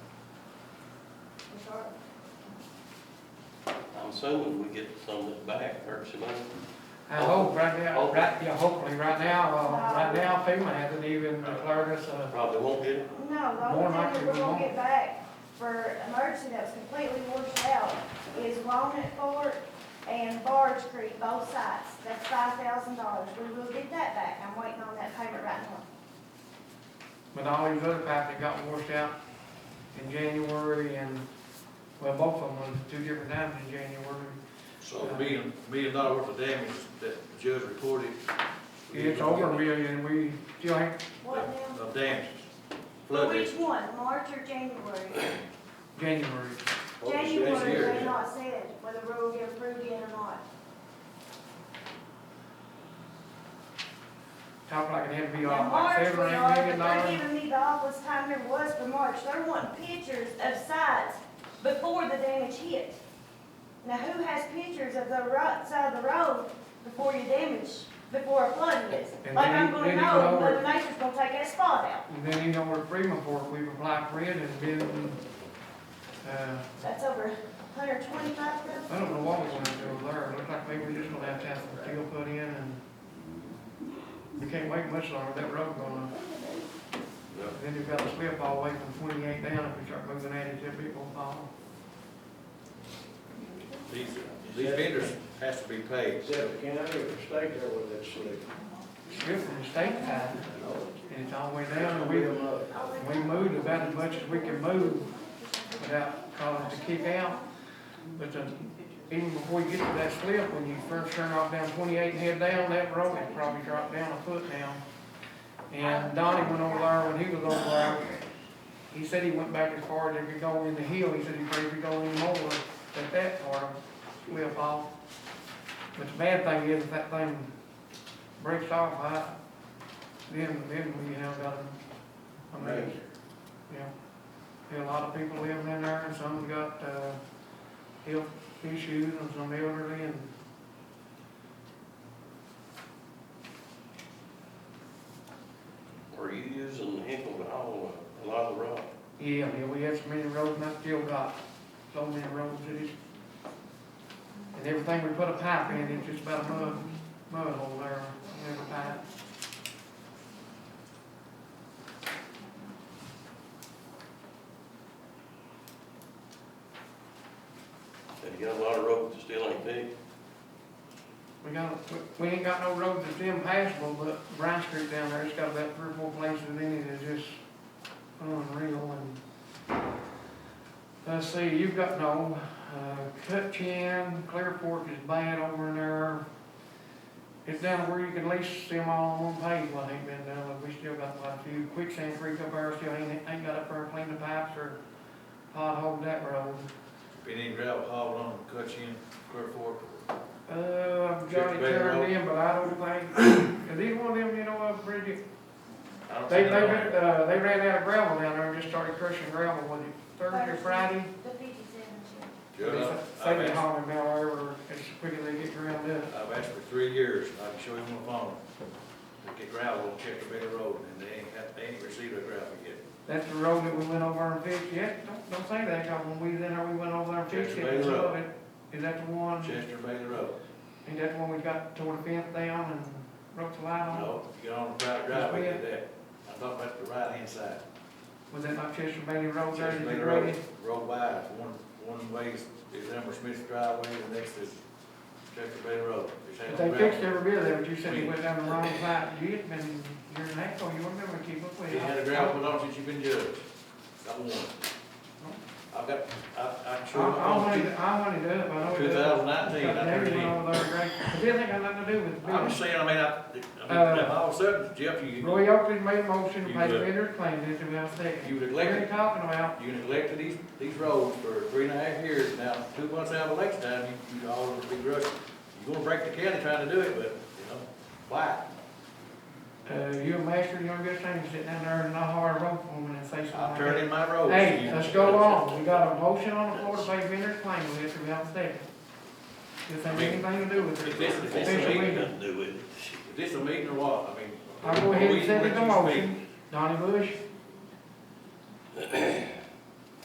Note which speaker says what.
Speaker 1: assuming we get some of it back, or some money.
Speaker 2: I hope right now, right, yeah, hopefully, right now, uh, right now FEMA hasn't even declared us a,
Speaker 1: Probably won't get it.
Speaker 3: No, the
Speaker 2: More
Speaker 3: only
Speaker 2: than likely
Speaker 3: thing
Speaker 2: we
Speaker 3: that we're gonna
Speaker 2: won't.
Speaker 3: get back for emergency that was completely washed out is Walnut Fork and Barge Creek, both sides. That's five thousand dollars. We will get that back. I'm waiting on that payment right now.
Speaker 2: but all these other pipes that got washed out in January and, well, both of them was two different times in January.
Speaker 4: So a million, million dollar worth of damage that the judge reported.
Speaker 2: It's over a million, we still ain't,
Speaker 3: What now?
Speaker 4: Of damages, flood
Speaker 3: Which
Speaker 4: damage.
Speaker 3: one, March or January?
Speaker 2: January,
Speaker 4: What was the next
Speaker 3: January, they
Speaker 4: year?
Speaker 3: not said whether we will get approved in or not.
Speaker 2: top like it had to be
Speaker 3: Now,
Speaker 2: off
Speaker 3: March,
Speaker 2: like
Speaker 3: we
Speaker 2: seven,
Speaker 3: are,
Speaker 2: or
Speaker 3: but
Speaker 2: eight million
Speaker 3: they're
Speaker 2: dollars.
Speaker 3: giving me the office time there was for March, they're wanting pictures of sites before the damage hit. Now, who has pictures of the right side of the road before your damage, before a flood hits?
Speaker 2: And
Speaker 3: Like
Speaker 2: then
Speaker 3: I'm
Speaker 2: you-
Speaker 3: gonna
Speaker 2: then you
Speaker 3: know,
Speaker 2: go
Speaker 3: Mother
Speaker 2: over-
Speaker 3: Nature's gonna take that spot out,
Speaker 2: And then you know where Freeman Fork, we've applied for it and been, uh,
Speaker 3: that's over a hundred twenty-five thousand.
Speaker 2: I don't know what we're gonna have to do with there, looks like maybe we're just gonna have to have some steel put in and we can't wait much longer, that road gonna,
Speaker 4: Yeah.
Speaker 2: then you've got to slip all the way from twenty-eight down if we start moving at it, then people fall.
Speaker 4: These, these vendors has to be paid.
Speaker 5: Is that the county or the state there with that slick?
Speaker 2: It's from the state side, and it's all the way down, and we, we moved about as much as we can move without causing to kick out. But the, even before you get to that slip, when you first turn off down twenty-eight and head down, that road has probably dropped down a foot now. And Donnie went over there, when he was over there, he said he went back as far as if you go in the hill, he said he prayed if you go any more, that that part will fall. But the bad thing is, if that thing breaks off, I, then, then we have got a, a mess. Yeah, there are a lot of people living in there, and some got, uh, health issues, and some elderly, and.
Speaker 1: Are you using the heckle to haul a lot of the rock?
Speaker 2: Yeah, yeah, we had so many roads, and I still got so many roads that it's, and everything we put a pipe in, it's just about a mud, mud hole there, on every pipe.
Speaker 1: And you got a lot of roads that still ain't big.
Speaker 2: We got, we- we ain't got no road that's impassable, but Bryan Street down there, it's got about three or four places in it that's just unreal and. Let's see, you've got no, uh, Cutchin, Clear Fork is bad over in there. It's down to where you can lease them all on one page, what ain't been done, but we still got quite a few. Quicksand Creek up there still ain't, ain't got up there clean the pipes or pothole that road.
Speaker 4: Been in gravel hauled on, cut in, clear fork.
Speaker 2: Uh, I've got it
Speaker 4: Big road.
Speaker 2: turned in, but I don't think, is either one of them, you know, uh, Bridget,
Speaker 4: I don't
Speaker 2: They,
Speaker 4: think
Speaker 2: they,
Speaker 4: they're on
Speaker 2: ran-
Speaker 4: there.
Speaker 2: uh, they ran out of gravel down there and just started crushing gravel, was it Thursday, or Friday?
Speaker 3: The fifty-seven,
Speaker 4: Judge,
Speaker 2: They've
Speaker 4: I've
Speaker 2: been
Speaker 4: asked,
Speaker 2: hauling down there ever, as quick as they get ground up.
Speaker 4: I've asked for three years, and I can show you on the phone. To get gravel, check the bed road, and they ain't, got- they ain't received a gravel yet.
Speaker 2: That's the road that we went over and fixed, yeah, don't, don't say that, 'cause when we was in there, we went over there and fixed it,
Speaker 4: Chester Bay
Speaker 2: some of
Speaker 4: Road.
Speaker 2: it. Is that the one, is
Speaker 4: Chester Bailey Road.
Speaker 2: that the one we got tore the fence down and broke the light on?
Speaker 4: No, you get on the private driveway, get that. I'm talking about the right hand side.
Speaker 2: Was that not Chester Bailey Road there
Speaker 4: Chester
Speaker 2: that
Speaker 4: Bailey
Speaker 2: you
Speaker 4: Road,
Speaker 2: rated?
Speaker 4: road wide, one, one way is Elmer Smith driveway, the next is Chester Bailey Road. It's
Speaker 2: But
Speaker 4: on
Speaker 2: they
Speaker 4: gravel.
Speaker 2: fixed every bit of it, but you said you
Speaker 4: We-
Speaker 2: went down the wrong side, you had been, you're an echo, you wouldn't ever keep up with
Speaker 4: He
Speaker 2: it.
Speaker 4: had a gravel put on since you've been judged. Got one. I've got, I, I'm
Speaker 2: I, I wanted,
Speaker 4: sure.
Speaker 2: it- I wanted it up, I know it
Speaker 4: Two
Speaker 2: does.
Speaker 4: thousand nineteen, I
Speaker 2: Never
Speaker 4: heard
Speaker 2: went
Speaker 4: him.
Speaker 2: over there, Greg. It didn't have nothing to do with
Speaker 4: I'm just
Speaker 2: business.
Speaker 4: saying, I mean, I, I mean,
Speaker 2: Uh,
Speaker 4: all of a sudden, Jeff, you,
Speaker 2: Roy Oakley made a motion to
Speaker 4: You
Speaker 2: pay the
Speaker 4: look.
Speaker 2: vendor claim, this is what I'm
Speaker 4: you
Speaker 2: saying. What are you
Speaker 4: neglected,
Speaker 2: talking about?
Speaker 4: you neglected these, these roads for three and a half years. Now, two months out of election time, you, you all over big rush. You're gonna break the county trying to do it, but, you know, why?
Speaker 2: Uh, you a master, you don't get things sitting down there and not hard rope for them and say something
Speaker 4: I
Speaker 2: like
Speaker 4: turned
Speaker 2: that.
Speaker 4: in my roads.
Speaker 2: Hey,
Speaker 4: You-
Speaker 2: let's go on. We got a motion on the floor to pay vendor claim, this is what I'm saying. This ain't anything to do with
Speaker 4: If
Speaker 2: it.
Speaker 4: this, if this a
Speaker 2: Official
Speaker 4: meeting,
Speaker 2: meeting.
Speaker 1: Nothing to do with it.
Speaker 4: if this a meeting or what, I mean.
Speaker 2: I'll go ahead
Speaker 4: we
Speaker 2: and
Speaker 4: let
Speaker 2: send it
Speaker 4: you
Speaker 2: to
Speaker 4: speak.
Speaker 2: motion. Donnie Bush?